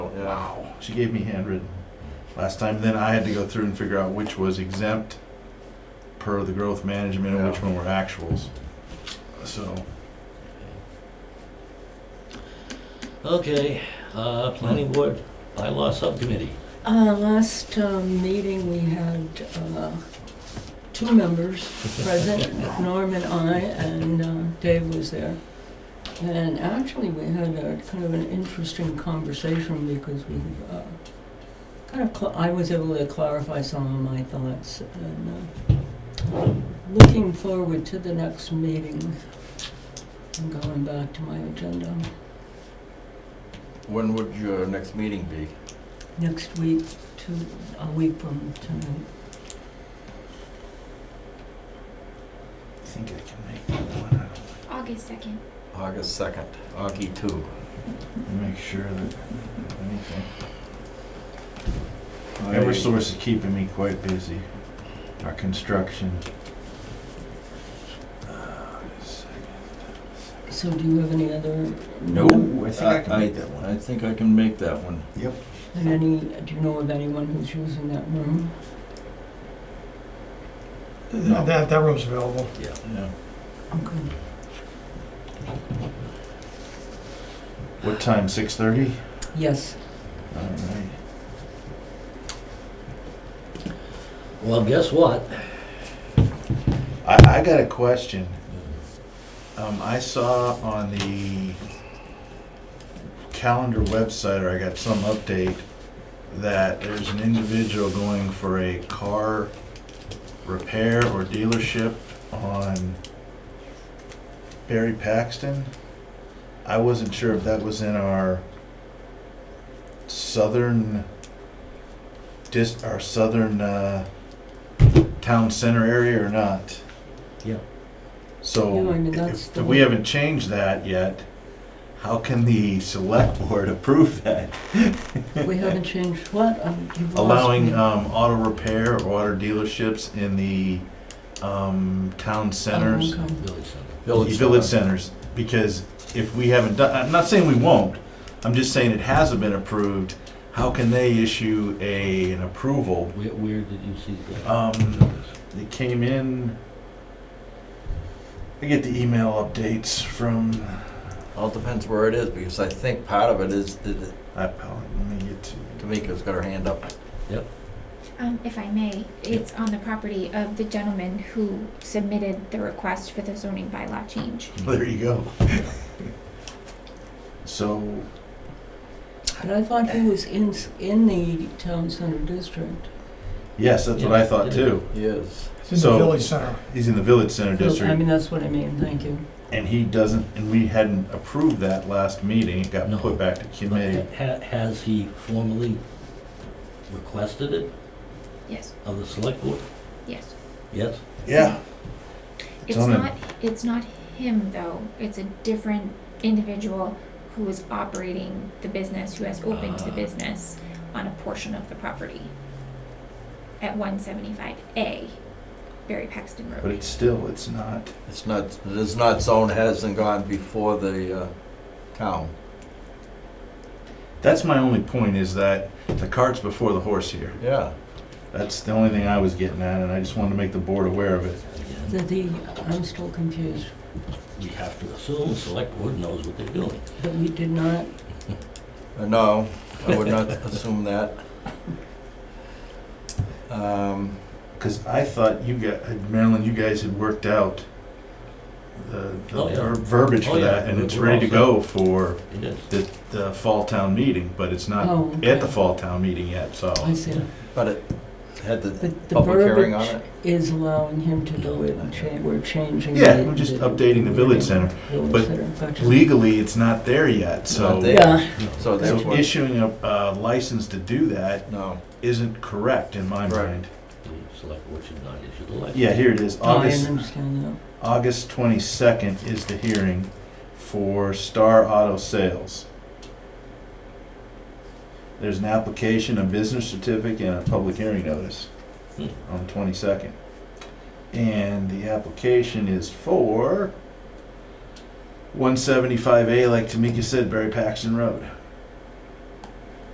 Wow. She gave me handwritten last time. Then I had to go through and figure out which was exempt per the growth management and which one were actuals. So, Okay, uh, planning board, bylaw subcommittee. Uh, last um, meeting, we had uh, two members present, Norm and I, and uh, Dave was there. And actually, we had a kind of an interesting conversation because we, uh, kind of, cl- I was able to clarify some of my thoughts. And uh, looking forward to the next meeting, I'm going back to my agenda When would your next meeting be? next week, to, a week from tonight. I think I can make that one. I don't- August 2nd. August 2nd, Augie 2. Let me Make sure that anything. I- Eversource is keeping me quite busy. Our construction. August So do you have any other? No, I think I can make that one. I think I can make that one. And any, do you know of anyone who's using that room? No. That, that- that room's available. second. Yeah. Okay. What time, six thirty? Yes, All right. Well, guess what? I, I got a question. Um, I saw on the calendar website, or I got some update, that there's an individual going for a car repair or dealership on Barry Paxton. I wasn't sure if that was in our southern dis, our southern, uh, town center area or not. Yeah. So, Yeah, I mean, that's if the if we one. haven't changed that yet, how can the select board approve that? we haven't changed what, um, you've lost me. Allowing, um, auto repair or auto dealerships in the, um, town centers? Oh, okay. Village center. Village, village centers, because if we haven't done, I'm not saying we won't, I'm just saying it hasn't been approved, how can they issue a, an approval? Where, where did you see that? Um, It came in, I get the email updates from, All depends where it is, because I think part of it is that I, probably- let me get to. Tamika's got her hand up. Um, if I may, it's on the property of the gentleman who submitted the request for the zoning bylaw change. There you go. So, But I thought he was in, s- in the town center district. yes, that's what I thought too. Yes. It's in the So- village center. He's in the village center I district, mean, that's what I mean, thank you. and he doesn't, and we hadn't approved that last meeting, it got No. put back to committee. Ha- Has he formally requested it Yes, of the select board? yes. Yes? Yeah. It's Tell him. not, it's not him though. It's a different individual who is operating the business, who has opened the Ah. business on a portion of the property at 175A Barry Paxton Road. But it's still, it's not, It's not, it is not zoned, hasn't gone before the uh, town. that's my only point is that the cart's before the horse here. Yeah. That's the only thing I was getting at, and I just wanted to make the board aware of it. The, the, I'm still confused, We have to assume the select board knows what they're doing. but we did not, Uh, No, I would not assume that. Um, Cause I thought you got, Marilyn, you guys had worked out the, the Oh, yeah. ver- verbiage Oh, for yeah. that, and We're- it's we're ready to all go for It is. the, the fall town meeting, but it's not oh. at Uh, the okay. fall town meeting yet, so. I see. But it had the But the public hearing on verbiage it. is allowing him to do it, and cha- we're changing. Yeah, the- we're just the updating the village center. village but center. Gotcha. Legally, it's not there yet, Not so. there. Yeah. So that's So what, issuing a, a license to do that no. isn't correct in my Right. mind. The select board should not issue the license. Yeah, here it is, Oh, I August understand that. August 22nd is the hearing for Star Auto Sales. There's an application, a business certificate, and a public hearing notice Hmm. on 22nd. And the application is for 175A, like Tamika said, Barry Paxton Road.